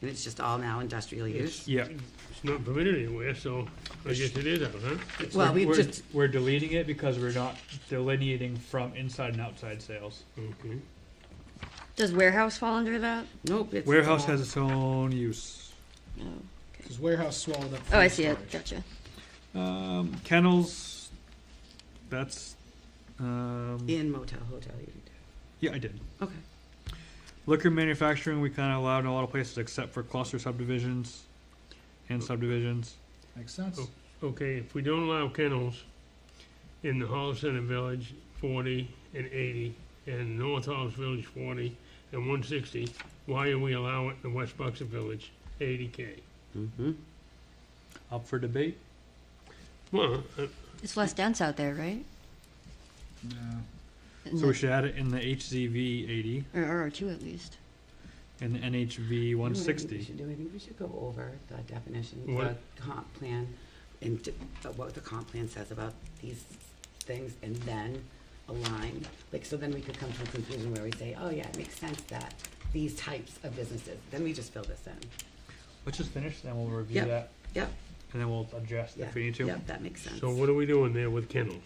and it's just all now industrial use. Yeah, It's not permitted anywhere, so I guess it is out, huh? Well, We're- we've we're- just, We're deleting it because we're not delineating from inside and outside sales. Okay. Does warehouse fall under that? nope, it's. warehouse has its own use. No. Because warehouse swallowed up. Oh, I food see it. storage. Gotcha. Um, kennels, that's, um, In motel, hotel, you can yeah, I did. do, okay. Liquor manufacturing, we kinda allowed in a lot of places except for cluster subdivisions and subdivisions. Makes sense. Oh. Okay, if we don't allow kennels in the Hall Center Village forty and eighty, and North Hall's Village forty and one sixty, why are we allowing it in West Buxton Village eighty K? Mm-hmm. Up for debate? Well, uh, It's less dense out there, right? No. In So we the- should add it in the HZV eighty Or R two at least. and the NHV one We sixty. should do, I think we should go over the definition, the What? comp plan, and d- uh, what the comp plan says about these things, and then align. Like, so then we could come to a conclusion where we say, oh yeah, it makes sense that these types of businesses, then we just fill this in. Let's just finish, then we'll review Yep. that, Yep, and then we'll adjust yeah, if we need to. yep, that makes sense. so what are we doing there with kennels?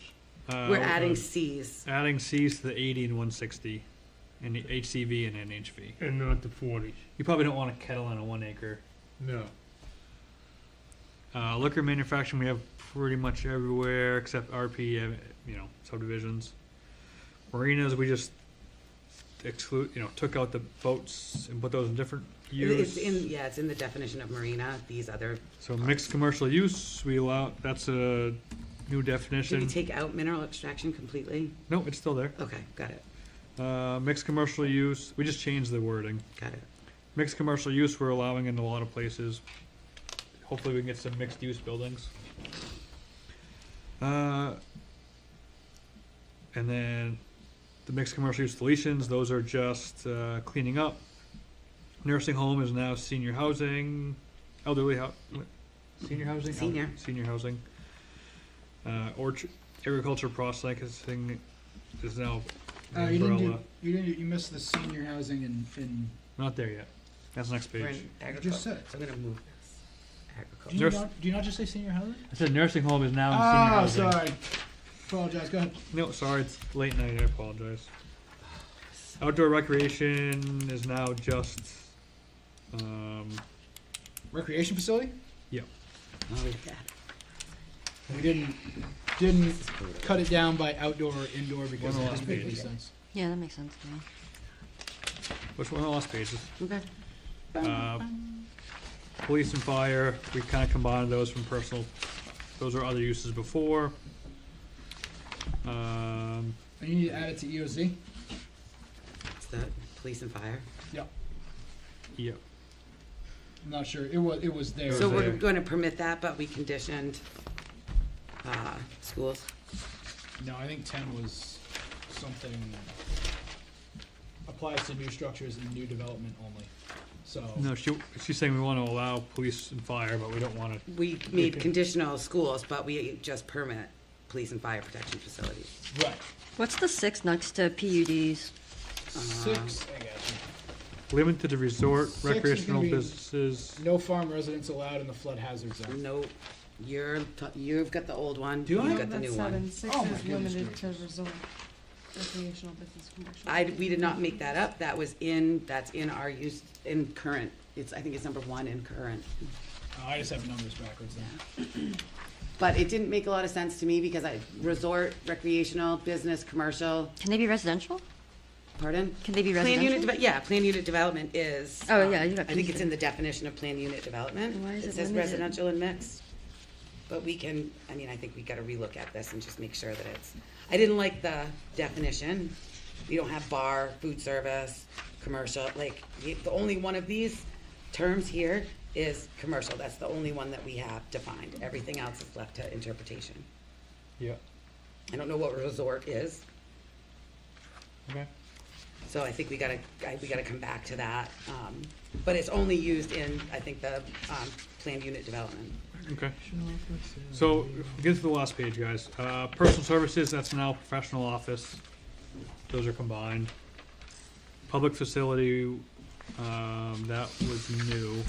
Uh, We're adding Cs. Adding Cs to the eighty and one sixty and the HCV and NHV. And not the forties? You probably don't want a kettle on a one acre. No. Uh, liquor manufacturing we have pretty much everywhere except RP, uh, you know, subdivisions. Marinas we just exclude, you know, took out the boats and put those in different It- It's use. in, yeah, it's in the definition of marina, these other, so mixed commercial use we allow. That's a new should we definition. take out mineral extraction completely? no, it's still there. Okay, got it, Uh, mixed commercial use we just changed the wording. got it. Mixed commercial use we're allowing in a lot of places. Hopefully we can get some mixed use buildings. Uh, and then the mixed commercial use deletions, those are just uh, cleaning up. Nursing home is now senior housing, elderly hou- senior housing, Elder- Senior. senior housing. Uh, orchard agriculture processing is now an Uh, you umbrella. didn't do, you didn't, do- you missed the senior housing and, and Not there yet. That's next page. We're in you just agriculture, said it. so I'm gonna move this, Do agriculture. you Nurse- not, do you not just say senior housing? I said nursing home is now in senior Oh, housing. sorry. Apologize, go ahead. No, sorry, it's late night. I apologize. Outdoor recreation is now just. Um, Recreation facility? Oh, we got it. We didn't, didn't cut it down by outdoor or indoor One because of the last it doesn't make any pages. sense. Yeah, that makes sense to me. which one of the last pages? Okay. Uh, police and fire. We kind of combined those from personal. Those are other uses before. Um, And you need to add it to E EOZ? It's the police and fire. yeah. I'm not sure. It was, it was there. So we're there. gonna permit that, but we conditioned, uh, schools. No, I think ten was something, applies to new structures and new development only, so. No, she she's saying we want to allow police and fire, but we don't want to. We made conditional schools, but we just permit police and fire protection facilities. Right. What's the six next to PUDs? Six, I got Limited to resort Six is gonna recreational be- businesses. you. No farm residents allowed in the flood hazard zone. No, you're, t- you've got the old one, Do I? you've got the new one. That's seven, Oh, six my is goodness limited to gracious. resort, recreational, business, commercial. I, we did not make that up, that was in, that's in our use, in current, it's, I think it's number one in current. Oh, I just have numbers backwards then. But it didn't make a lot of sense to me because I, resort, recreational, business, commercial, Can they be residential? pardon? Can they be Plan unit, residential? deve- yeah, plan unit development is. Oh, um, yeah, you got I think these it's in the definition of plan unit development. Why is it says limited? residential and mixed. But we can, I mean, I think we gotta relook at this and just make sure that it's, I didn't like the definition. We don't have bar, food service, commercial, like, y- the only one of these terms here is commercial. That's the only one that we have defined. Everything else is left to interpretation. Yeah. I don't know what resort is, Okay. So I think we gotta, I- we gotta come back to that. um, But it's only used in, I think, the um, planned unit development. Okay. So, get to the last page, guys. Uh, personal services, that's now professional office. Those are combined. Public facility, um, that was new.